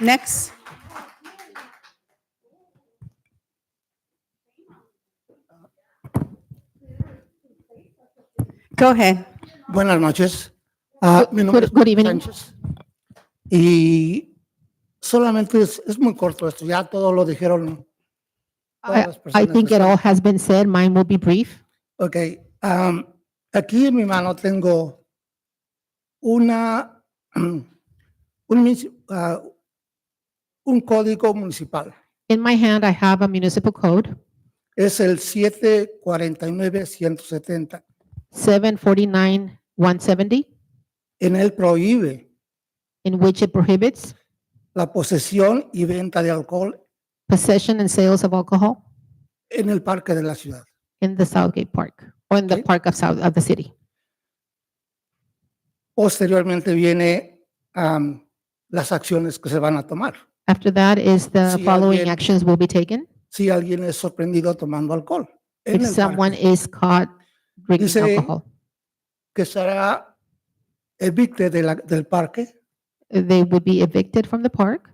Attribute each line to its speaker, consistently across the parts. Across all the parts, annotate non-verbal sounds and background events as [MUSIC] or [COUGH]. Speaker 1: Next. Go ahead.
Speaker 2: Buenas noches. Ah, mi nombre
Speaker 3: good-
Speaker 2: es
Speaker 3: good evening.
Speaker 2: Sánchez. Y solamente es, es muy corto esto, ya todo lo dijeron. todas
Speaker 3: I,
Speaker 2: las
Speaker 3: I
Speaker 2: personas que
Speaker 3: think it
Speaker 2: están-
Speaker 3: all has been said. Mine will be brief.
Speaker 2: Ok, am, aquí en mi mano tengo una, [CLEARS THROAT] un, mis- ah, un código municipal.
Speaker 3: In my hand, I have a municipal code,
Speaker 2: Es el 749-170.
Speaker 3: 749-170,
Speaker 2: En él prohíbe
Speaker 3: in which it prohibits
Speaker 2: la posesión y venta de alcohol
Speaker 3: possession and sales of alcohol
Speaker 2: en el parque de la ciudad.
Speaker 3: in the Southgate Park or in the
Speaker 2: Okay.
Speaker 3: park of South, of the city.
Speaker 2: Posteriormente viene am, las acciones que se van a tomar.
Speaker 3: After that is the
Speaker 2: Si
Speaker 3: following
Speaker 2: alguien-
Speaker 3: actions will be taken.
Speaker 2: Si alguien es sorprendido tomando alcohol, en
Speaker 3: If
Speaker 2: el
Speaker 3: someone
Speaker 2: parque,
Speaker 3: is caught drinking
Speaker 2: Dice-
Speaker 3: alcohol,
Speaker 2: que será evicte de la- del parque,
Speaker 3: they would be evicted from the park.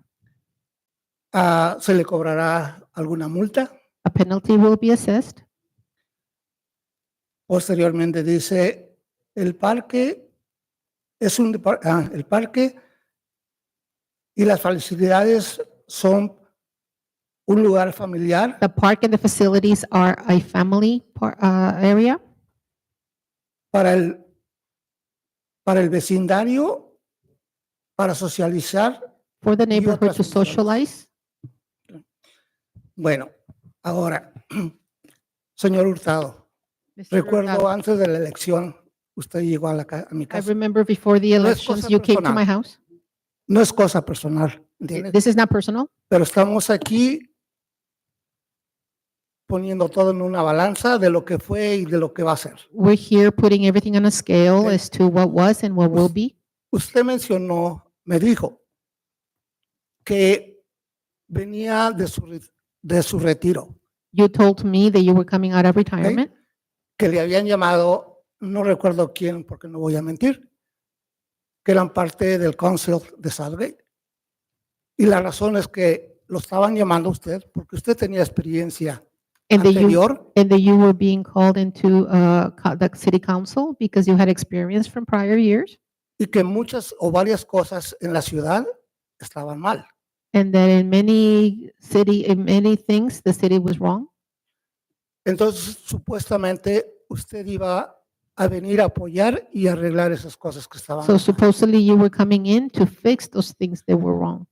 Speaker 2: ah, se le cobrará alguna multa.
Speaker 3: A penalty will be assessed.
Speaker 2: Posteriormente dice, el parque es un depar- ah, el parque y las facilidades son un lugar familiar
Speaker 3: The park and the facilities are a family par, uh, area.
Speaker 2: para el, para el vecindario, para socializar.
Speaker 3: for the
Speaker 2: otras
Speaker 3: neighborhood to
Speaker 2: funciones.
Speaker 3: socialize.
Speaker 2: Bueno, ahora, [CLEARS THROAT] señor Hurtado,
Speaker 3: Mr.
Speaker 2: recuerdo
Speaker 3: Hurtado, pues
Speaker 2: antes de la elección, usted llegó a, la ca- a mi
Speaker 3: I
Speaker 2: casa.
Speaker 3: remember before the
Speaker 2: es
Speaker 3: elections,
Speaker 2: cosa
Speaker 3: you came to
Speaker 2: personal.
Speaker 3: my house.
Speaker 2: No es cosa personal, ¿entiende?
Speaker 3: This is not personal,
Speaker 2: pero estamos aquí poniendo todo en una balanza de lo que fue y de lo que va a ser.
Speaker 3: we're here putting everything on a scale
Speaker 2: Okay.
Speaker 3: as to what was and what will be.
Speaker 2: Usted mencionó, me dijo, que venía de su, re- de su retiro,
Speaker 3: You told me that you were coming out of retirement,
Speaker 2: que le habían llamado, no recuerdo quién, porque no voy a mentir, que eran parte del Council de Salve. Y la razón es que lo estaban llamando a usted porque usted tenía experiencia
Speaker 3: and that you,
Speaker 2: anterior.
Speaker 3: and that you were being called into uh, co- the city council because you had experience from prior years,
Speaker 2: y que muchas o varias cosas en la ciudad estaban mal.
Speaker 3: and that in many city, in many things, the city was wrong.
Speaker 2: Entonces, supuestamente, usted iba a venir a apoyar y arreglar esas cosas que estaban
Speaker 3: So
Speaker 2: mal.
Speaker 3: supposedly you were coming in to fix those things that were wrong.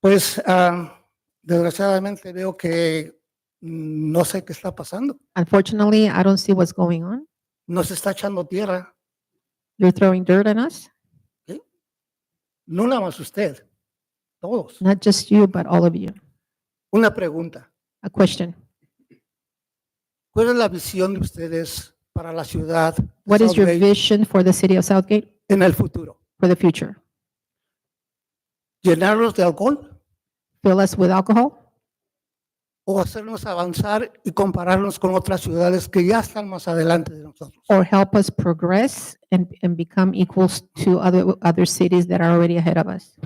Speaker 2: Pues, ah, desgraciadamente, veo que mm, no sé qué está pasando.
Speaker 3: Unfortunately, I don't see what's going on.
Speaker 2: Nos está echando tierra,
Speaker 3: You're throwing dirt on us,
Speaker 2: no nada más usted, todos.
Speaker 3: not just you, but all of you.
Speaker 2: Una pregunta,
Speaker 3: A question.
Speaker 2: ¿cuál es la visión de ustedes para la ciudad de
Speaker 3: What is your
Speaker 2: Southgate
Speaker 3: vision for the city of Southgate
Speaker 2: en el futuro?
Speaker 3: for the future?
Speaker 2: ¿Llenarnos de alcohol
Speaker 3: Fill us with alcohol
Speaker 2: o hacernos avanzar y compararnos con otras ciudades que ya están más adelante de nosotros.
Speaker 3: or help us progress and, and become equals to other, other cities that are already ahead of us?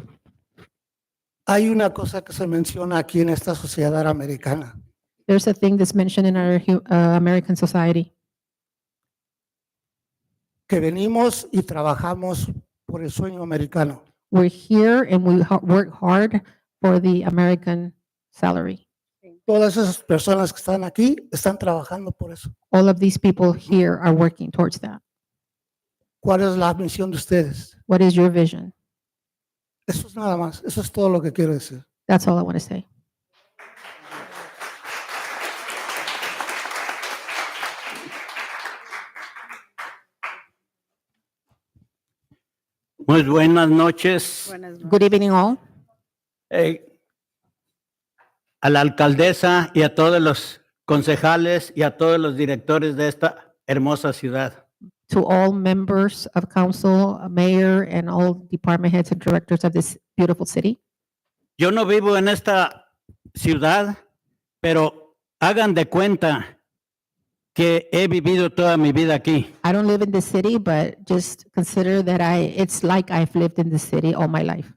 Speaker 2: Hay una cosa que se menciona aquí en esta sociedad americana,
Speaker 3: There's a thing that's mentioned in our hu- uh, American society.
Speaker 2: que venimos y trabajamos por el sueño americano.
Speaker 3: We're here and we ho- work hard for the American salary.
Speaker 2: Todas esas personas que están aquí están trabajando por eso.
Speaker 3: All of these people here are working towards that.
Speaker 2: ¿Cuál es la misión de ustedes?
Speaker 3: What is your vision?
Speaker 2: Eso es nada más, eso es todo lo que quiero decir.
Speaker 3: That's all I want to say.
Speaker 4: Muy buenas noches.
Speaker 3: Good evening, all.
Speaker 4: Eh, a la alcaldesa y a todos los concejales y a todos los directores de esta hermosa ciudad.
Speaker 3: to all members of council, uh, mayor, and all department heads and directors of this beautiful city.
Speaker 4: Yo no vivo en esta ciudad, pero hagan de cuenta que he vivido toda mi vida aquí.
Speaker 3: I don't live in the city, but just consider that I, it's like I've lived in the city all my life.